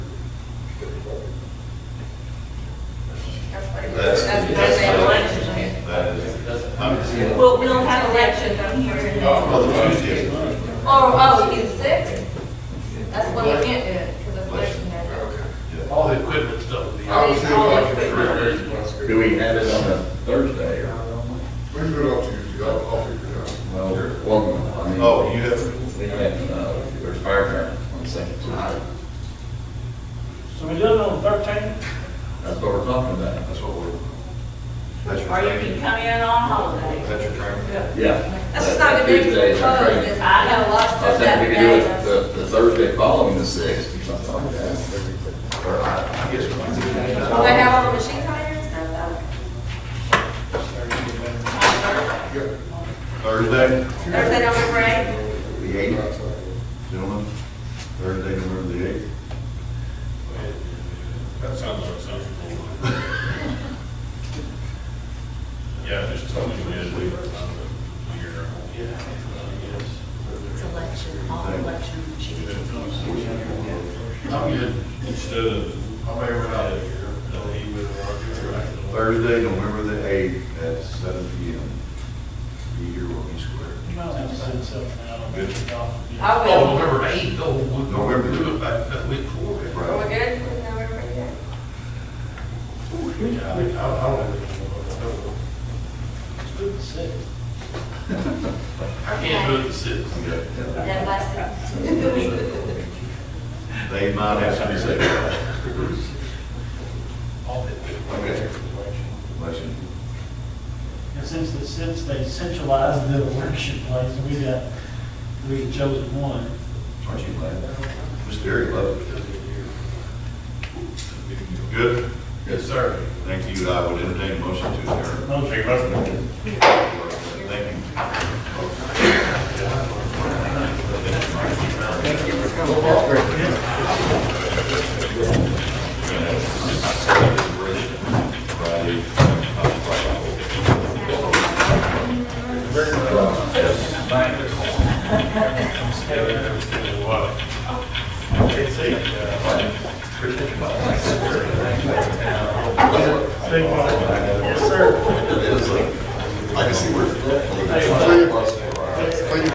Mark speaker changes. Speaker 1: That's,
Speaker 2: That's-
Speaker 1: that's,
Speaker 2: that's the election.
Speaker 1: that is, I'm,
Speaker 2: Well, we'll have election down here.
Speaker 1: well, the Tuesday is
Speaker 2: Oh, oh, you six? That's when we can't do it, because it's election day.
Speaker 1: yeah.
Speaker 3: All the equipment stuff will be.
Speaker 4: I was thinking like a
Speaker 3: Three
Speaker 4: Friday.
Speaker 3: days.
Speaker 5: Do we have it on a Thursday or,
Speaker 4: We can do it on Tuesday, I'll, I'll figure it out.
Speaker 5: well, well, I mean.
Speaker 1: Oh, you have,
Speaker 5: We have, uh, there's fire department on the second tonight.
Speaker 6: So we doing it on thirteen?
Speaker 5: That's what we're talking about.
Speaker 1: that's what we're, that's your
Speaker 2: Or you can
Speaker 1: training,
Speaker 2: come in on holiday.
Speaker 1: that's your training.
Speaker 5: Yeah.
Speaker 2: That's just not gonna be
Speaker 5: Tuesdays
Speaker 2: closed,
Speaker 5: are crazy.
Speaker 2: I know a lot of
Speaker 5: I
Speaker 2: stuff
Speaker 5: think
Speaker 2: that
Speaker 5: we could do
Speaker 2: day.
Speaker 5: it uh, the, the Thursday following the sixth or something like that. Or I, I guess Wednesday.
Speaker 2: Will they have all the machines out here and stuff
Speaker 4: Yep.
Speaker 1: Thursday,
Speaker 2: though? Thursday, November eighth?
Speaker 5: The eighth.
Speaker 1: gentlemen, Thursday, November the eighth.
Speaker 7: That sounds like something. cool. Yeah, just tell me when it is.
Speaker 3: Yeah, I
Speaker 8: It's election, all election
Speaker 3: guess. I'm good.
Speaker 7: Instead of,
Speaker 3: I'm here without it. No, he would have.
Speaker 1: Thursday, November the eighth at seven P M. Be here, Wilkie Square.
Speaker 6: You might have to send something out on
Speaker 7: Good.
Speaker 6: the golf.
Speaker 2: I
Speaker 3: Oh,
Speaker 2: will.
Speaker 3: November eighth, though. we-
Speaker 1: November.
Speaker 3: Do it back that week before.
Speaker 2: Are we
Speaker 1: Right.
Speaker 2: good with November eighth?
Speaker 3: Yeah, I, I don't know.
Speaker 6: It's good to see.
Speaker 3: I can't do it the sixth.
Speaker 1: Okay.
Speaker 2: Then last,
Speaker 1: They might have to be second.
Speaker 3: All that.
Speaker 1: Okay. Election.
Speaker 6: And since, the- since they centralized the election place, we got, we chose one.
Speaker 1: Aren't you glad? Mr. Terry Love. Good?
Speaker 3: Yes, sir.
Speaker 1: Thank you. I would entertain a motion to adjourn.
Speaker 6: Motion.
Speaker 1: Thank you.
Speaker 2: Saturday.
Speaker 1: Yes.